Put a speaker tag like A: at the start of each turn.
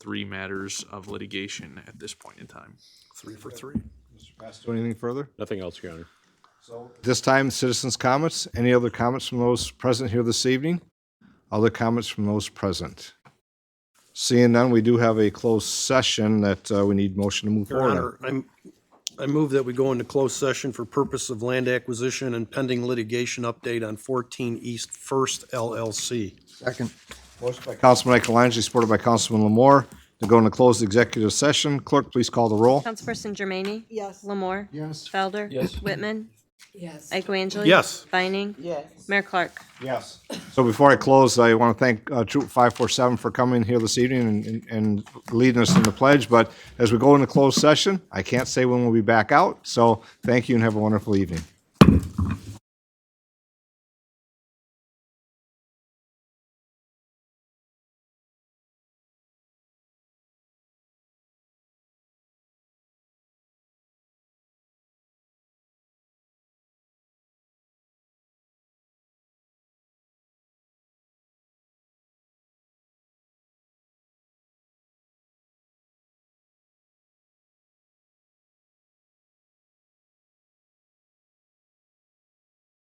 A: three matters of litigation at this point in time.
B: Three for three.
C: Mr. Pasto, anything further?
D: Nothing else, Your Honor.
C: This time, citizens' comments. Any other comments from those present here this evening? Other comments from those present? Seeing none, we do have a closed session that uh, we need motion to move
E: Your
C: forward. on.
E: Honor, I'm, I move that we go into closed session for purpose of land acquisition and pending litigation update on 14 East First LLC.
B: Second.
C: Motion by Councilman Akalangi, supported by Councilman Lamore, to go into closed executive session. Clerk, please call the roll.
F: Councilperson Jermaine? Yes. Lamore?
B: Yes.
F: Felder? Yes. Whitman?
G: Yes.
F: Ike Angeli?
E: Yes.
F: Vining?
G: Yes.
F: Mayor Clark?
C: Yes. So before I close, I want to thank uh, Troop 547 for coming here this evening and- and- and leading us in the pledge. But as we go into closed session, I can't say when we'll be back out. So thank you and have a wonderful evening.